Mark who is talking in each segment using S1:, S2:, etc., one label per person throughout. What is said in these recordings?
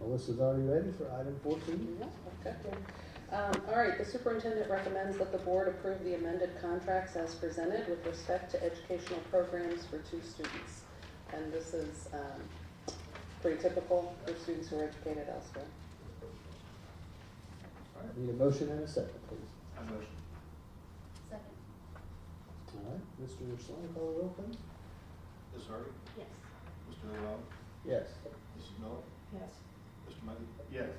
S1: Melissa's already ready for item fourteen.
S2: Yeah, okay. Um, All right, the superintendent recommends that the board approve the amended contracts as presented with respect to educational programs for two students. And this is um, pretty typical for students who are educated elsewhere.
S1: All right, need a motion and a second, please.
S3: I motion.
S4: Second,
S1: All right, Mr. Slang, call the roll, please.
S3: Ms. Harvey?
S4: yes.
S3: Mr. Noel?
S1: Yes.
S3: Mrs. Miller?
S4: Yes.
S3: Mr. Muggy? Yes.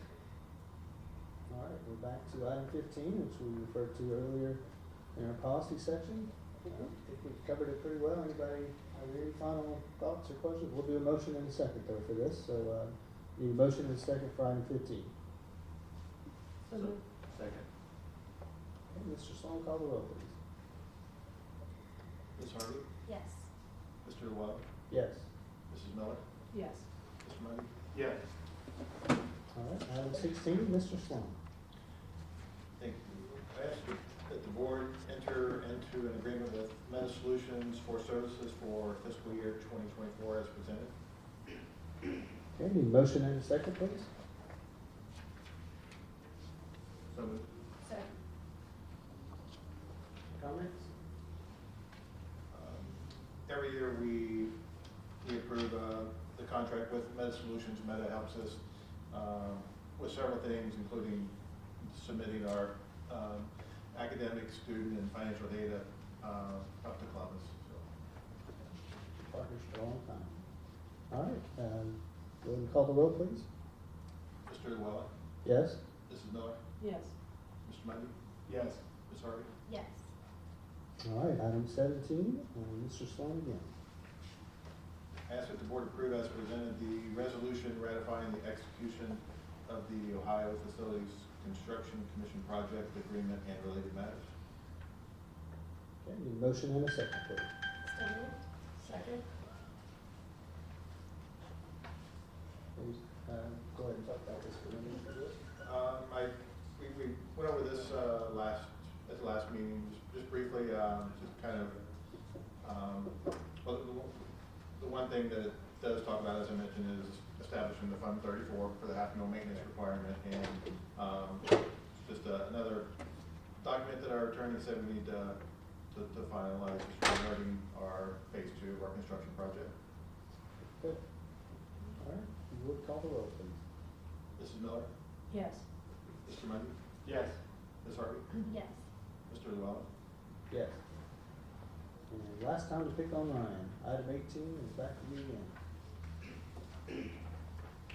S1: All right, we're back to item fifteen, which we referred to earlier in our policy section. I
S2: Mm-hmm.
S1: think we've covered it pretty well. Anybody, are there any final thoughts or questions? We'll do a motion and a second though for this, so, uh, need a motion and a second for item fifteen.
S4: So moved.
S3: Second.
S1: Okay, Mr. Slang, call the roll, please.
S3: Ms. Harvey?
S4: Yes.
S3: Mr. Noel?
S1: Yes.
S3: Mrs. Miller?
S4: Yes.
S3: Mr. Muggy? Yes.
S1: All right, item sixteen, Mr. Slang.
S3: Thank you. I ask that the board enter into an agreement with Meta Solutions for services for fiscal year twenty twenty-four as presented.
S1: Okay, need a motion and a second, please.
S3: So moved.
S4: Second,
S1: Comments?
S3: Um, Every year, we, we approve uh, the contract with Meta Solutions. Meta helps us um, with several things, including submitting our um, academic, student, and financial data uh, up to Columbus. So,
S1: Parker's for a long time. All right, um, go ahead and call the roll, please.
S3: Mr. Llewellyn,
S1: Yes?
S3: Mrs. Miller,
S5: Yes,
S3: Mr. Mundy? Yes. Ms. Harvey?
S4: yes.
S1: All right, item seventeen, uh, Mr. Sloan again.
S3: Ask that the board approve as presented the resolution ratifying the execution of the Ohio Facilities Construction Commission Project Agreement and related matters.
S1: Okay, need a motion and a second, please.
S4: So moved. Second,
S1: Please, uh, go ahead and talk about this for a minute.
S3: Um, I, we, we went over this, uh, last, at the last meeting, just- just briefly, um, just kind of, um, well, the one- the one thing that it does talk about, as I mentioned, is establishing the Fund thirty-four for the half-mil maintenance requirement, and, um, just uh, another document that our attorney said we need to, to to finalize just regarding our phase two of our construction project.
S1: Good. All right, you would call the roll, please.
S3: Mrs. Miller?
S5: yes,
S3: Mr. Mundy? Yes. Ms. Harvey?
S4: yes.
S3: Mr. Llewellyn?
S1: Yes. And last time to pick on Ryan, item eighteen is back to you again.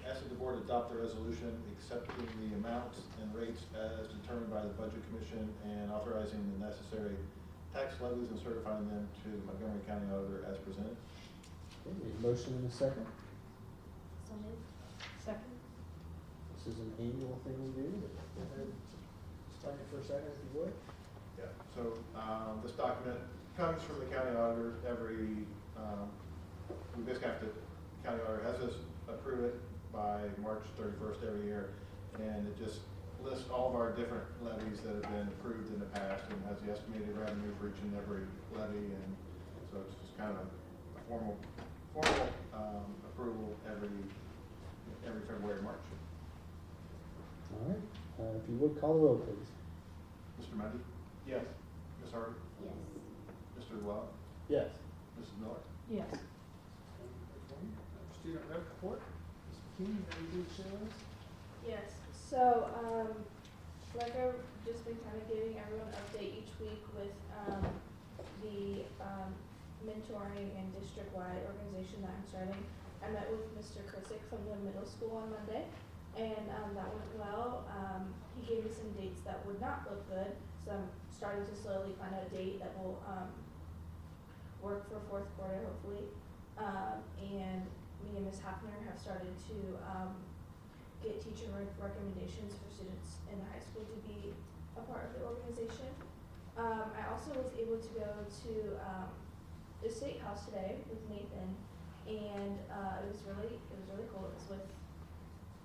S3: Ask that the board adopt the resolution accepting the amounts and rates as determined by the Budget Commission and authorizing the necessary tax levies and certifying them to the Montgomery County Auditor as presented.
S1: Okay, need a motion and a second.
S4: So moved.
S5: second,
S1: This is an annual thing we do, but go ahead, start it for a second if you would.
S3: Yeah. So, um, this document comes from the county auditor every, um, we basically have to, county auditor has us approve it by March thirty-first every year. And it just lists all of our different levies that have been approved in the past and has the estimated revenue for each and every levy. And so it's just kind of a formal, formal, um, approval every, every February, March.
S1: All right, uh, if you would call the roll, please.
S3: Mr. Mundy? Yes. Ms. Harvey?
S4: Yes.
S3: Mr. Llewellyn?
S1: Yes.
S3: Mrs. Miller?
S5: yes.
S1: Student rep report, Ms. McKean, anything to share with us?
S6: Yes, so, um, like I've just been kind of giving everyone an update each week with, um, the, um, mentoring and district-wide organization that I'm starting. I met with Mr. Krissick from the middle school on Monday, and, um, that went well. Um, he gave me some dates that would not look good, so I'm starting to slowly find out a date that will, um, work for fourth quarter hopefully. Um, and me and Ms. Hafner have started to, um, get teacher rec- recommendations for students in the high school to be a part of the organization. Um, I also was able to go to um, the state house today with Nathan, and uh, it was really it was really cool. It was with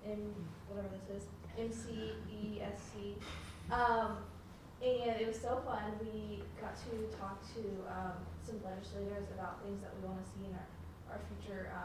S6: M whatever this is M C E S C, um, and it was so fun. We got to talk to um, some legislators about things that we want to see in our our future. Um,